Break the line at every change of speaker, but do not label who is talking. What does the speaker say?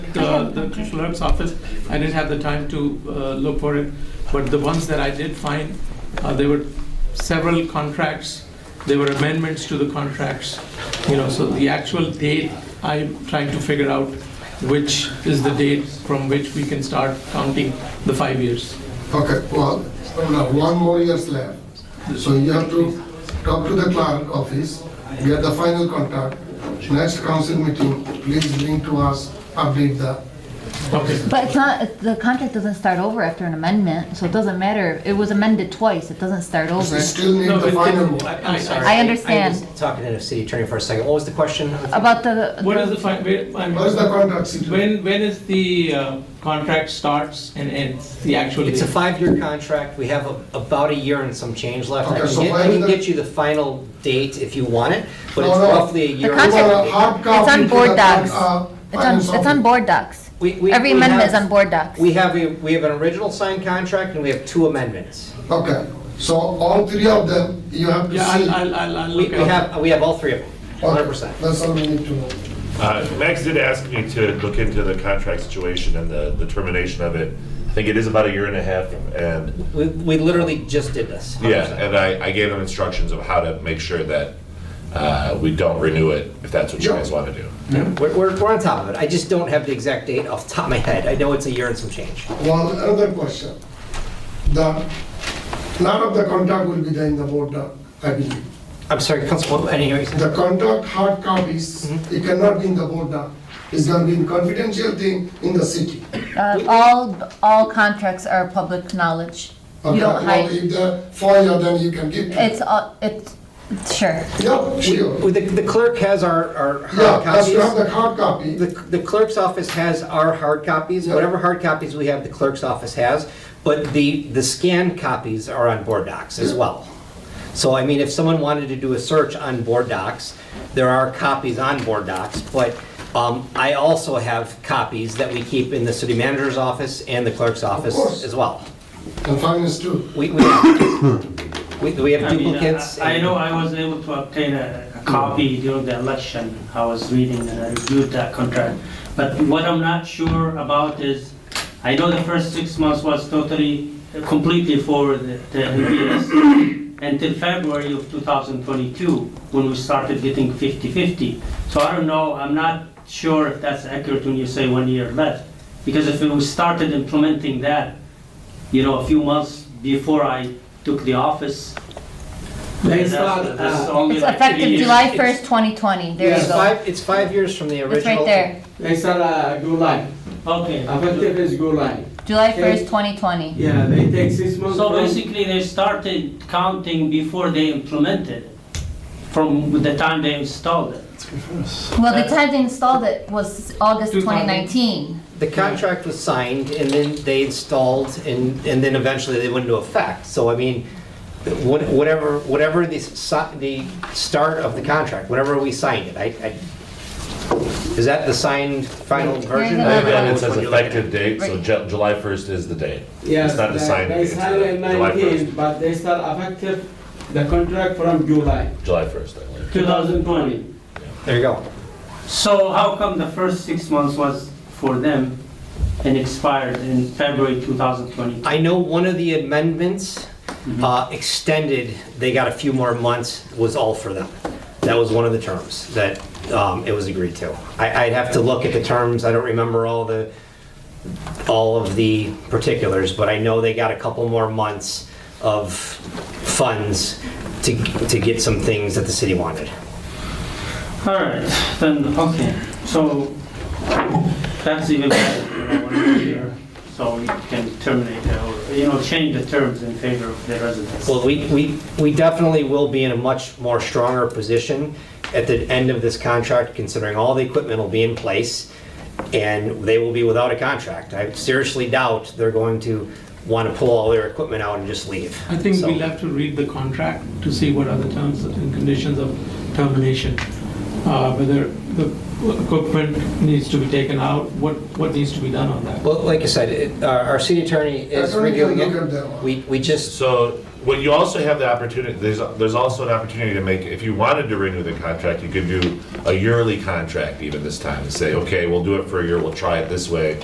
checked uh, the Krishna's office. I didn't have the time to uh, look for it, but the ones that I did find, uh, there were several contracts. There were amendments to the contracts, you know. So the actual date, I'm trying to figure out which is the date from which we can start counting the five years.
Okay, well, now one more year's left. So you have to talk to the clerk office, get the final contract. Next council meeting, please bring to us, update the,
Okay.
But it's not, the contract doesn't start over after an amendment, so it doesn't matter. It was amended twice, it doesn't start over.
we still need
No,
the
but-
final one.
I- I-
I understand.
I'm just talking to the city attorney for a second. What was the question?
About the,
What is the fi- where, I mean,
What is the contract situation?
When when is the uh, contract starts and ends? The actual
It's a
date?
five-year contract. We have a- about a year and some change left. I
Okay,
can
so
get-
why
I can
the-
get you the final date if you want it, but
No,
it's
no.
roughly a year.
You
and
contract-
want a
some date.
hard copy
It's on
to the
board
con-
docs.
uh,
it's on,
finance
it's on
office.
board docs.
We- we-
Every
we
amendment
have-
is on board docs.
We have, a we have an original signed contract and we have two amendments.
Okay, so all three of them, you have to see.
Yeah, I'll, I'll, I'll, I'll
We
look
we
at it.
have, we have all three of them,
Okay,
100%.
That's all we need to know.
Uh, Max did ask me to look into the contract situation and the, the termination of it. I think it is about a year and a half, and
We we literally just did this.
yeah,
100%.
and I, I gave him instructions of how to make sure that uh, we don't renew it if that's what you guys want to do.
We're, we're, we're on top of it. I just don't have the exact date off the top of my head. I know it's a year and some change.
One, another question. The, lot of the contract will be there in the board doc, I believe.
I'm sorry, Councilwoman, I didn't hear you say.
The contract hard copies, it cannot be in the board doc. It's gonna be in confidential thing in the city.
Uh, all, all contracts are public knowledge. You
Okay,
don't
well,
hide,
if the FOIA, then you can give. to-
it's, all- it's, sure.
Yeah, sure.
Well, The the clerk has our, our
Yeah,
hard
as you have
copies.
the hard copy,
The the clerk's office has our hard copies,
Yeah.
whatever hard copies we have, the clerk's office has, but the, the scanned copies are on Board Docs as well. So I mean, if someone wanted to do a search on Board Docs, there are copies on Board Docs, but um, I also have copies that we keep in the city manager's office and the clerk's office
course.
as well.
and finance too.
We, we, we, we have
I mean, uh,
duplicates.
I I
and-
know I was able to obtain a a copy during the election. I was reading and I reviewed that contract. But what I'm not sure about is, I know the first six months was totally, completely for the the NPS until February of 2022, when we started getting 50/50. So I don't know, I'm not sure if that's accurate when you say one year left. Because if we started implementing that, you know, a few months before I took the office.
They
that's-
start,
that's
uh,
only
It's
like three
effective
years.
July 1st, 2020, there you
It's
go.
five, it's five years from the original.
It's right there,
It's uh, go live.
Okay.
is go live.
July 1st, 2020.
Yeah,
Mm-hmm.
they take six
So basically, they started counting before they implemented, from the time they installed it.
Well, the time they installed it was August 2019.
The contract was signed and then they installed and, and then eventually they went into effect. So I mean, what- whatever, whatever the, si- the start of the contract, whenever we signed it, I, I, is that the signed final version?
Yeah,
And
yeah, yeah.
then it
Which
says
one you looking
effective date, so
Right.
Ju- July 1st is the date.
Yes,
It's not the
they
signed
they
date, it's
signed in
July 1st.
nineteen, but they start effective the contract from July
July 1st, I believe.
two thousand twenty.
at? There you go.
So how come the first six months was for them and expired in February 2020?
Um, I know one of the amendments uh, extended, they got a few more months, was all for them. That was one of the terms that um, it was agreed to. I- I'd have to look at the terms, I don't remember all the, all of the particulars, but I know they got a couple more months of funds to, to get some things that the city wanted.
All right, then, okay, so that's even better, you know, one year, so we can terminate that, or, you know, change the terms in favor of the residents.
Well, we, we, we definitely will be in a much more stronger position at the end of this contract, considering all the equipment will be in place, and they will be without a contract. I seriously doubt they're going to want to pull all their equipment out and just leave.
I think
So-
we'll have to read the contract to see what are the terms and conditions of termination. Uh, Whether the equipment needs to be taken out, what, what needs to be done on that?
Well, like I said, it- our our city attorney is
Attorney can
reviewing
look at that
it.
one.
We we just,
So, what you also have the opportunity, there's, there's also an opportunity to make, if you wanted to renew the contract, you could do a yearly contract even this time and say, okay, we'll do it for a year, we'll try it this way.